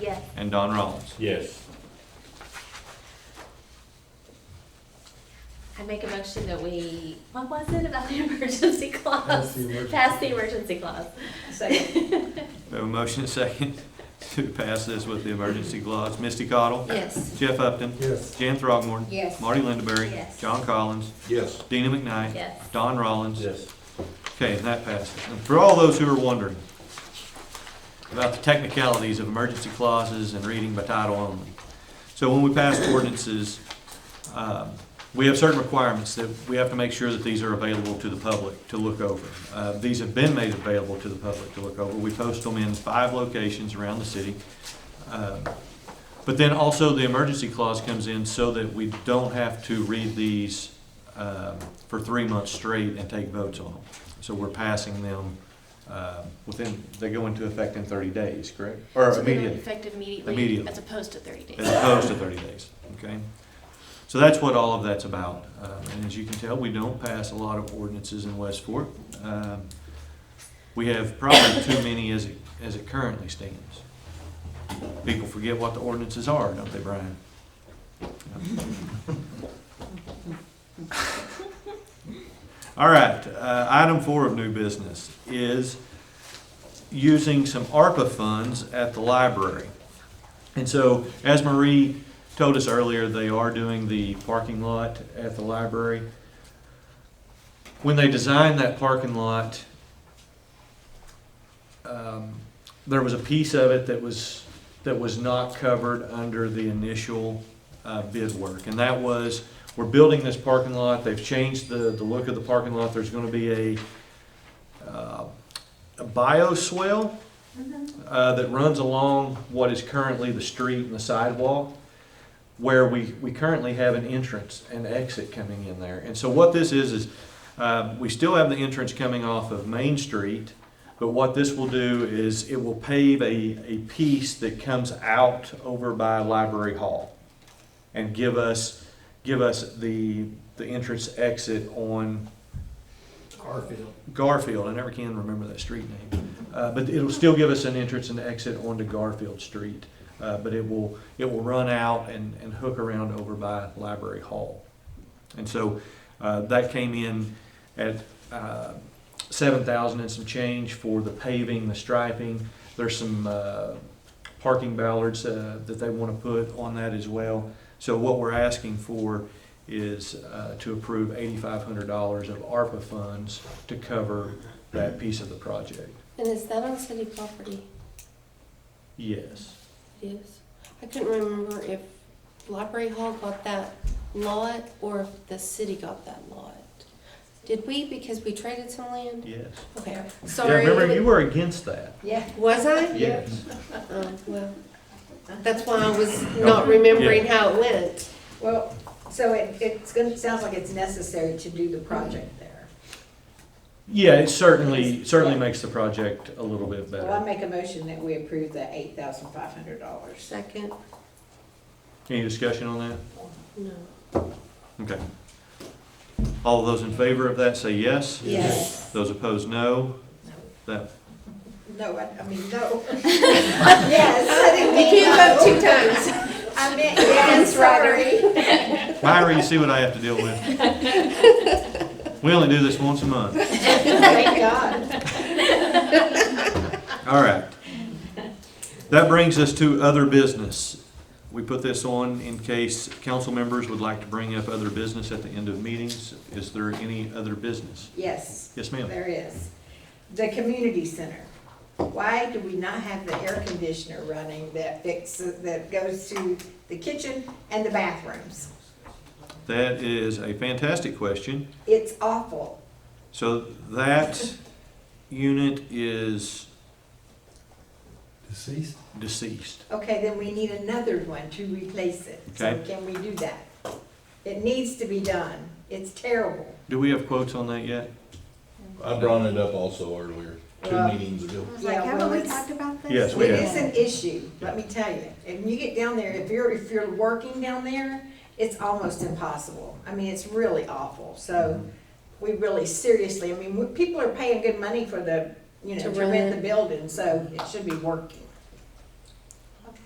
Yes. and Don Rollins. Yes. I make a motion that we, what was it about the emergency clause? emergency. Pass the emergency clause. Second. We have a motion and a second to pass this with the emergency clause. Misty Cottle? Yes. Jeff Upton? Yes. Jan Throgmorton? Yes. Marty Lindaberry? Yes. John Collins? Yes. Dina McKnight? Yes. Don Rollins? Yes. Okay, and that passes. And for all those who are wondering about the technicalities of emergency clauses and reading by title only. So when we pass ordinances, um, we have certain requirements that we have to make sure that these are available to the public to look over. Uh, These have been made available to the public to look over. We post them in five locations around the city. Um, But then also the emergency clause comes in so that we don't have to read these um, for three months straight and take votes on them. So we're passing them uh, within, they go into effect in 30 days, correct? So they Or don't immediately, Effective immediately, Immediately. as opposed to thirty days. as opposed to 30 days, okay? So that's what all of that's about. Um, And as you can tell, we don't pass a lot of ordinances in West Fork. Um, We have probably too many as it, as it currently stands. People forget what the ordinances are, don't they, Brian? All right, uh, item four of new business is using some ARPA funds at the library. And so, as Marie told us earlier, they are doing the parking lot at the library. When they designed that parking lot, um, there was a piece of it that was, that was not covered under the initial uh, bid work. And that was, we're building this parking lot, they've changed the, the look of the parking lot, there's gonna be a, uh, a bioswale Mm-hmm. uh, that runs along what is currently the street and the sidewalk, where we, we currently have an entrance and exit coming in there. And so what this is, is uh, we still have the entrance coming off of Main Street, but what this will do is it will pave a, a piece that comes out over by Library Hall and give us, give us the, the entrance exit on Garfield. Garfield, I never can remember that street name, uh, but it'll still give us an entrance and exit onto Garfield Street. Uh, but it will, it will run out and, and hook around over by Library Hall. And so, uh, that came in at, uh, seven thousand and some change for the paving, the striping. There's some, uh, parking ballards, uh, that they wanna put on that as well. So what we're asking for is, uh, to approve eighty-five hundred dollars of ARPA funds to cover that piece of the project. And is that on city property? Yes. It is. I couldn't remember if Library Hall got that lot or if the city got that lot. Did we, because we traded some land? Yes. Okay, Yeah, sorry. remember, you were against that. Yeah. Was I? Yes. Oh, well, that's why I was not remembering how it went. Well, so it, it's gonna, sounds like it's necessary to do the project there. Yeah, it certainly, certainly makes the project a little bit Well, I better. make a motion that we approve the eight thousand five hundred dollars. Second, Any discussion on that? no. Okay. All those in favor of that say yes. Yes. Those opposed, no. That, No, I, I mean, no. Yes, I didn't You mean can't vote no. two times. I meant yes, Roderick. Myra, you see what I have to deal with? We only do this once a month. Thank God. All right. That brings us to other business. We put this on in case council members would like to bring up other business at the end of meetings. Is there any other business? Yes. Yes, ma'am. There is. The community center. Why do we not have the air conditioner running that fixes, that goes to the kitchen and the bathrooms? That is a fantastic question. It's awful. So that unit is Deceased? deceased. Okay, then we need another one to replace it. So Okay. can we do that? It needs to be done. It's terrible. Do we have quotes on that yet? I brought it up also earlier, two Well- meetings ago. was like, haven't we talked about this? Yes, we It have. is an issue, let me tell you. And you get down there, if you're, if you're working down there, it's almost impossible. I mean, it's really awful. Mm-hmm. So we really seriously, I mean, we- people are paying good money for the, you know, To to rent rent it. the building, so it should be working.